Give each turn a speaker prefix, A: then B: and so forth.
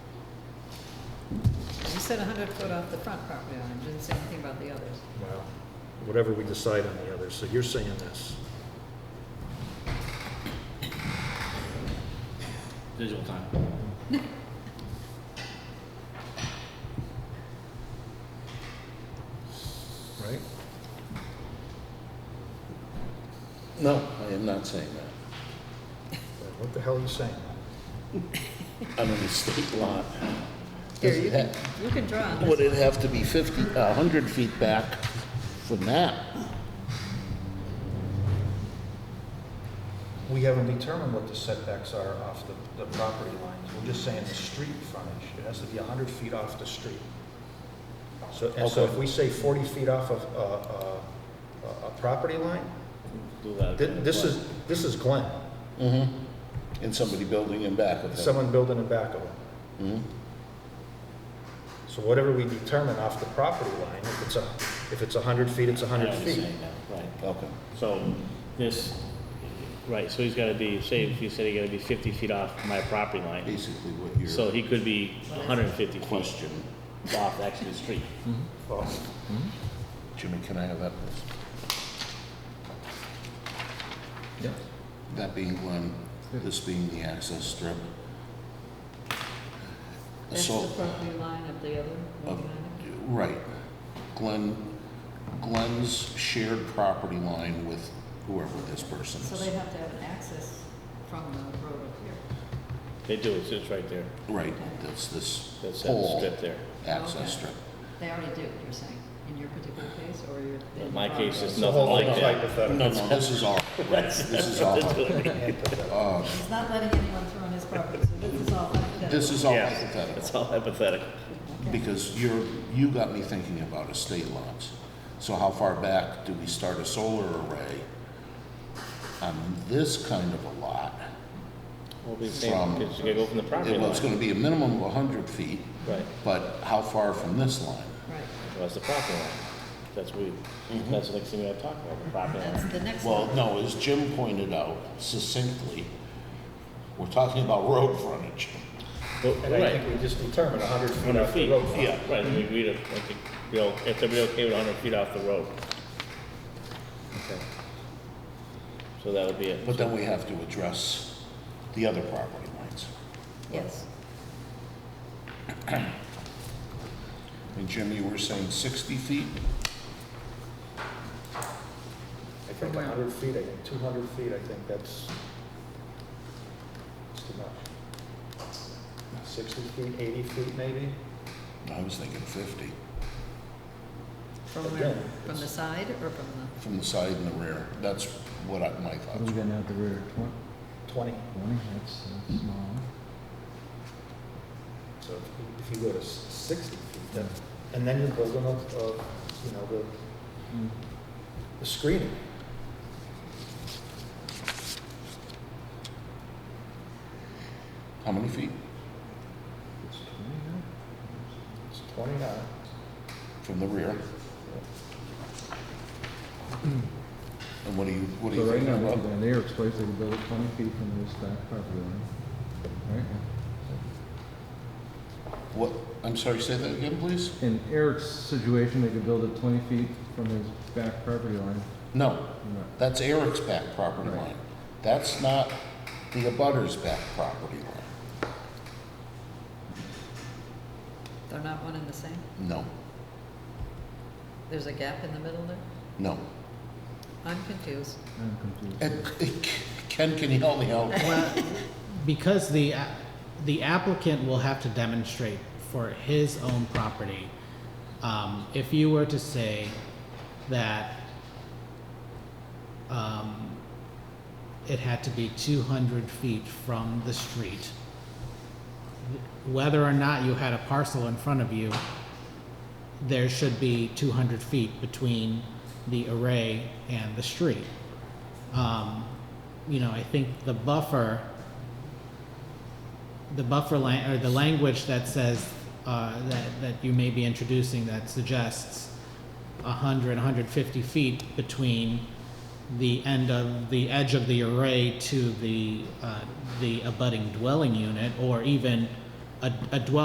A: said hundred foot off the front property line, didn't say anything about the others.
B: Well, whatever we decide on the others, so you're saying this.
C: Digital time.
B: Right.
D: No, I am not saying that.
B: What the hell are you saying?
D: I mean, the state lot.
A: Here,
D: Does it
A: you can,
D: ha-
A: you can draw on
D: Would
A: this.
D: it have to be 50, a 100 feet back from that?
B: We haven't determined what the setbacks are off the, the property lines. We're just saying the street frontage. It has to be hundred feet off the street. So, and so if we say forty feet off of, uh, uh, a, a property line,
C: Do that.
B: thi- this is, this is Glenn,
D: And somebody building in back of it?
B: someone building a back of him.
D: Mhm.
B: So whatever we determine off the property line, if it's a, if it's hundred feet, it's
C: I know
B: hundred
C: what you're
B: feet.
C: saying now, Right,
D: Okay.
C: so this, right, so he's gotta be, say, if you said he gotta be fifty feet off my property line,
D: Basically what you're.
C: so he could be hundred and fifty feet
D: Question.
C: off actually the street.
B: Well,
D: Jimmy, can I have that? please? That being Glenn, this being the access strip.
A: That's
D: So. Uh,
A: the property line of the other one
D: Of-
A: behind it.
D: Right. Glenn, Glenn's shared property line with whoever this person
A: So they
D: is.
A: have to have an access from the road up here.
C: They do, it's just right there,
D: Right, that's this
C: that's that
D: whole
C: strip there.
A: Okay.
D: access strip.
A: They already do, you're saying, in your particular case, or your.
C: In
A: in
C: my
A: the
C: case,
A: progress?
C: it's Nothing like
B: It's a
C: that.
B: hypothetical.
D: No, no, this is all, right, this is all,
B: Hypothetical.
D: uh,
A: He's not letting anyone through on his property, so this is all hypothetical.
D: this is all
C: Yeah,
D: hypothetical.
C: It's all hypothetical.
A: Okay.
D: Because you're, you got me thinking about estate lots. So how far back do we start a solar array on this kind of a lot?
C: We'll be saying,
D: From-
C: because you gotta go from the property
D: Well, It's
C: line.
D: gonna be a minimum of hundred feet,
C: Right,
D: but how far from this line?
A: Right,
C: well, that's the property line. That's we, that's the next thing we gotta talk about, the property
A: that's
C: line.
A: the next
D: Well,
A: one.
D: no, as Jim pointed out succinctly, we're talking about road frontage.
C: Well,
B: And I
C: Right,
B: think we just determined hundred feet
C: hundred
B: off the
C: feet,
B: road. frontage.
C: yeah, right, and we agreed, on- I think, we all, if everybody okay with hundred feet off the road. Okay. So that would be it.
D: But then we have to address the other property lines.
A: Yes,
D: And Jim, you were saying 60 feet?
B: I think
A: Wow.
B: hundred feet, I think two hundred feet, I think that's, that's too much. Sixty feet, eighty feet maybe?
D: I was thinking 50,
A: from
B: But
A: where,
B: then
A: from the
B: it's-
A: side or from the,
D: from the side and the rear. That's what I, my
E: What
D: thoughts
E: do we
D: were.
E: got now at the rear? Twen-
B: Twenty,
E: Twenty, that's, that's small.
B: so if you- if you go to s- sixty feet, then, and then you're building up, uh, you know, the,
E: Mm-hmm.
B: the screening.
D: How many feet?
E: It's twenty, huh?
B: It's twenty-nine.
D: From the rear? And what do you, what do
E: So
D: you
E: right
D: think
E: now, what
D: about?
E: we got there, it's placed, they can build it twenty feet from this back property line. Right?
D: What, I'm sorry, say that again, please?
E: In Eric's situation, they could build it twenty feet from his back property line.
D: No,
E: No.
D: That's Eric's back property
E: Right.
D: line. That's not the abutter's back property line.
A: they're not one and the same?
D: No,
A: There's a gap in the middle there?
D: no.
A: I'm confused.
E: I'm confused.
D: And, uh, Ken, can you help me out?
F: because the, a- the applicant will have to demonstrate for his own property, um, if you were to say that, um, it had to be two hundred feet from the street, whether or not you had a parcel in front of you, there should be two hundred feet between the array and the street. Um, you know, I think the buffer the buffer lan- or the language that says, uh, that, that you may be introducing that suggests hundred, hundred fifty feet between the end of, the edge of the array to the, uh, the abutting dwelling unit, or even a, a dwelling